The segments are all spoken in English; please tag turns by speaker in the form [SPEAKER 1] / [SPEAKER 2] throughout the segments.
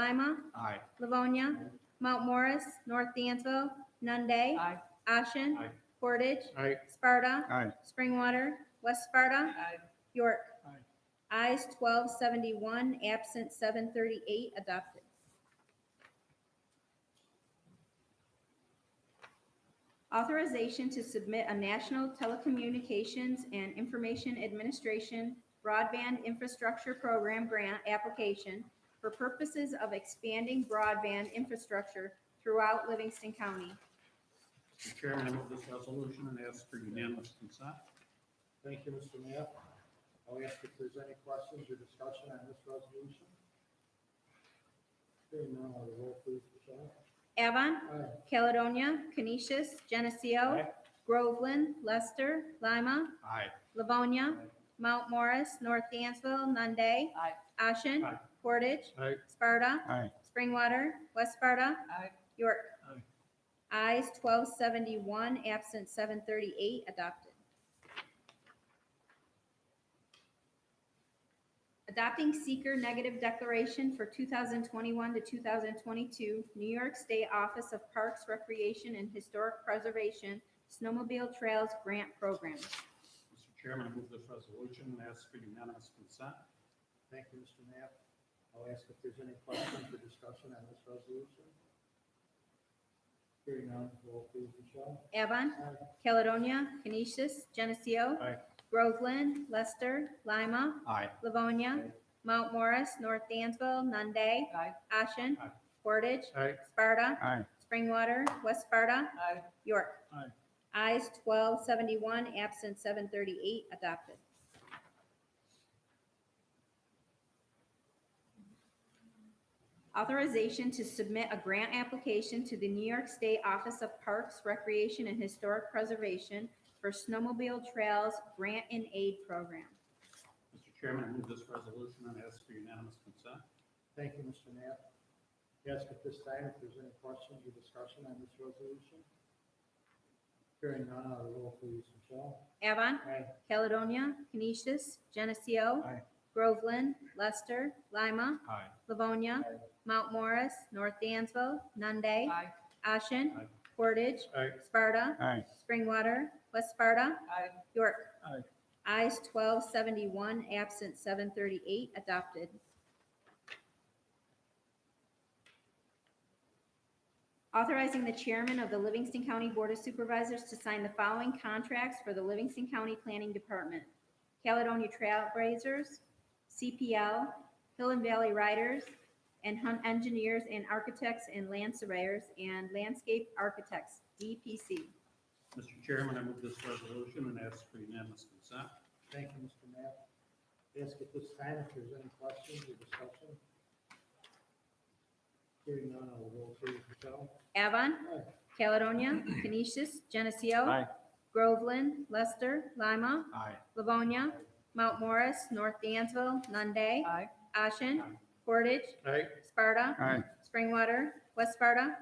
[SPEAKER 1] Lima,
[SPEAKER 2] Aye.
[SPEAKER 1] Livonia, Mount Morris, North Dansville, Nunde,
[SPEAKER 3] Aye.
[SPEAKER 1] Ashen,
[SPEAKER 2] Aye.
[SPEAKER 1] Portage,
[SPEAKER 2] Aye.
[SPEAKER 1] Sparta,
[SPEAKER 2] Aye.
[SPEAKER 1] Springwater, West Sparta,
[SPEAKER 3] Aye.
[SPEAKER 1] York.
[SPEAKER 2] Aye.
[SPEAKER 1] Ayes twelve seventy-one, absent seven thirty-eight, adopted. Authorization to submit a National Telecommunications and Information Administration Broadband Infrastructure Program Grant application for purposes of expanding broadband infrastructure throughout Livingston County.
[SPEAKER 2] Mr. Chairman, I move this resolution and ask for unanimous consent.
[SPEAKER 4] Thank you, Mr. Knapp. I'll ask if there's any questions or discussion on this resolution. Hearing none, I'll roll please, Michelle.
[SPEAKER 1] Avon,
[SPEAKER 4] Aye.
[SPEAKER 1] Caledonia, Canisius, Geneseo,
[SPEAKER 2] Aye.
[SPEAKER 1] Groveland, Lester, Lima,
[SPEAKER 2] Aye.
[SPEAKER 1] Livonia,
[SPEAKER 2] Aye.
[SPEAKER 1] Mount Morris, North Dansville, Nunde,
[SPEAKER 3] Aye.
[SPEAKER 1] Ashen,
[SPEAKER 2] Aye.
[SPEAKER 1] Portage,
[SPEAKER 2] Aye.
[SPEAKER 1] Sparta,
[SPEAKER 2] Aye.
[SPEAKER 1] Springwater, West Sparta,
[SPEAKER 3] Aye.
[SPEAKER 1] York. Ayes twelve seventy-one, absent seven thirty-eight, adopted. Adopting seeker negative declaration for two thousand twenty-one to two thousand twenty-two, New York State Office of Parks, Recreation, and Historic Preservation Snowmobile Trails Grant Program.
[SPEAKER 2] Mr. Chairman, I move this resolution and ask for unanimous consent.
[SPEAKER 4] Thank you, Mr. Knapp. I'll ask if there's any questions or discussion on this resolution. Hearing none, roll please, Michelle.
[SPEAKER 1] Avon,
[SPEAKER 4] Aye.
[SPEAKER 1] Caledonia, Canisius, Geneseo,
[SPEAKER 2] Aye.
[SPEAKER 1] Groveland, Lester, Lima,
[SPEAKER 2] Aye.
[SPEAKER 1] Livonia,
[SPEAKER 2] Aye.
[SPEAKER 1] Mount Morris, North Dansville, Nunde,
[SPEAKER 3] Aye.
[SPEAKER 1] Ashen,
[SPEAKER 2] Aye.
[SPEAKER 1] Portage,
[SPEAKER 2] Aye.
[SPEAKER 1] Sparta,
[SPEAKER 2] Aye.
[SPEAKER 1] Springwater, West Sparta,
[SPEAKER 3] Aye.
[SPEAKER 1] York.
[SPEAKER 2] Aye.
[SPEAKER 1] Eyes twelve seventy-one, absent seven thirty-eight, adopted. Authorization to submit a grant application to the New York State Office of Parks, Recreation, and Historic Preservation for Snowmobile Trails Grant and Aid Program.
[SPEAKER 2] Mr. Chairman, I move this resolution and ask for unanimous consent.
[SPEAKER 4] Thank you, Mr. Knapp. Ask at this time if there's any questions or discussion on this resolution. Hearing none, I'll roll please, Michelle.
[SPEAKER 1] Avon,
[SPEAKER 4] Aye.
[SPEAKER 1] Caledonia, Canisius, Geneseo,
[SPEAKER 2] Aye.
[SPEAKER 1] Groveland, Lester, Lima,
[SPEAKER 2] Aye.
[SPEAKER 1] Livonia,
[SPEAKER 4] Aye.
[SPEAKER 1] Mount Morris, North Dansville, Nunde,
[SPEAKER 3] Aye.
[SPEAKER 1] Ashen,
[SPEAKER 2] Aye.
[SPEAKER 1] Portage,
[SPEAKER 2] Aye.
[SPEAKER 1] Sparta,
[SPEAKER 2] Aye.
[SPEAKER 1] Springwater, West Sparta,
[SPEAKER 3] Aye.
[SPEAKER 1] York.
[SPEAKER 2] Aye.
[SPEAKER 1] Eyes twelve seventy-one, absent seven thirty-eight, adopted. Authorizing the chairman of the Livingston County Board of Supervisors to sign the following contracts for the Livingston County Planning Department. Caledonia Trailblazers, CPL, Hill and Valley Riders, and Hunt Engineers and Architects and Land Surveyors and Landscape Architects, DPC.
[SPEAKER 2] Mr. Chairman, I move this resolution and ask for unanimous consent.
[SPEAKER 4] Thank you, Mr. Knapp. Ask at this time if there's any questions or discussion. Hearing none, I'll roll please, Michelle.
[SPEAKER 1] Avon,
[SPEAKER 4] Aye.
[SPEAKER 1] Caledonia, Canisius, Geneseo. Groveland, Lester, Lima,
[SPEAKER 2] Aye.
[SPEAKER 1] Livonia, Mount Morris, North Dansville, Nunde,
[SPEAKER 3] Aye.
[SPEAKER 1] Ashen,
[SPEAKER 2] Aye.
[SPEAKER 1] Portage,
[SPEAKER 2] Aye.
[SPEAKER 1] Sparta,
[SPEAKER 2] Aye.
[SPEAKER 1] Springwater, West Sparta,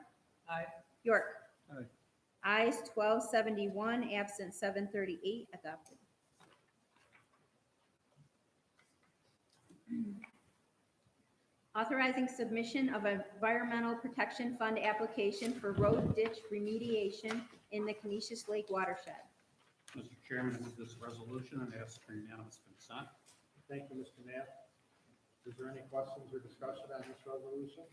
[SPEAKER 3] Aye.
[SPEAKER 1] York.
[SPEAKER 2] Aye.
[SPEAKER 1] Eyes twelve seventy-one, absent seven thirty-eight, adopted. Authorizing submission of Environmental Protection Fund application for road ditch remediation in the Canisius Lake watershed.
[SPEAKER 2] Mr. Chairman, I move this resolution and ask for unanimous consent.
[SPEAKER 4] Thank you, Mr. Knapp. Is there any questions or discussion on this resolution?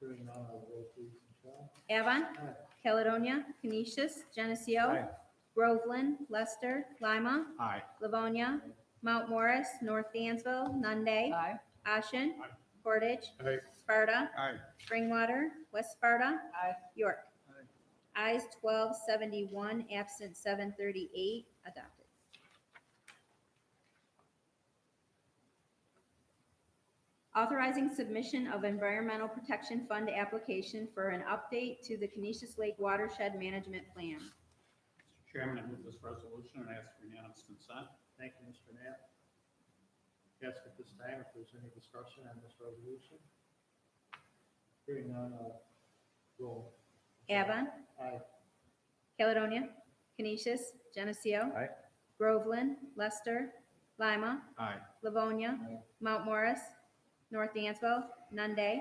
[SPEAKER 4] Hearing none, I'll roll please, Michelle.
[SPEAKER 1] Avon,
[SPEAKER 4] Aye.
[SPEAKER 1] Caledonia, Canisius, Geneseo,
[SPEAKER 2] Aye.
[SPEAKER 1] Groveland, Lester, Lima,
[SPEAKER 2] Aye.
[SPEAKER 1] Livonia, Mount Morris, North Dansville, Nunde,
[SPEAKER 3] Aye.
[SPEAKER 1] Ashen,
[SPEAKER 2] Aye.
[SPEAKER 1] Portage,
[SPEAKER 2] Aye.
[SPEAKER 1] Sparta,
[SPEAKER 2] Aye.
[SPEAKER 1] Springwater, West Sparta,
[SPEAKER 3] Aye.
[SPEAKER 1] York. Eyes twelve seventy-one, absent seven thirty-eight, adopted. Authorizing submission of Environmental Protection Fund application for an update to the Canisius Lake Watershed Management Plan.
[SPEAKER 2] Mr. Chairman, I move this resolution and ask for unanimous consent.
[SPEAKER 4] Thank you, Mr. Knapp. Ask at this time if there's any discussion on this resolution. Hearing none, I'll roll.
[SPEAKER 1] Avon,
[SPEAKER 4] Aye.
[SPEAKER 1] Caledonia, Canisius, Geneseo.
[SPEAKER 2] Aye.
[SPEAKER 1] Groveland, Lester, Lima,
[SPEAKER 2] Aye.
[SPEAKER 1] Livonia,
[SPEAKER 4] Aye.
[SPEAKER 1] Mount Morris, North Dansville, Nunde,